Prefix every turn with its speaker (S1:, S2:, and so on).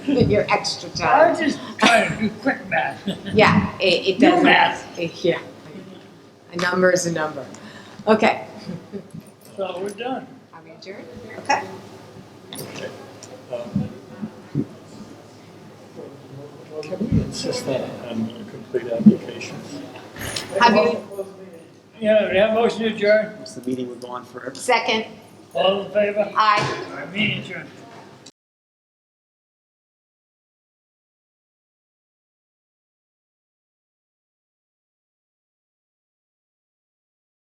S1: with your extra
S2: I'm
S1: time.
S2: just trying to do quick math.
S1: Yeah, it, it
S2: No
S1: doesn't.
S2: math.
S1: it- Yeah. A number is a number. Okay.
S2: So we're done.
S1: Are we adjourned? Okay.
S3: Can we insist on, on complete applications?
S1: Have you,
S2: Yeah, we have motion to adjourn.
S4: Because the meeting would go on forever.
S1: second,
S2: All in favor?
S1: aye.
S2: Our meeting adjourned.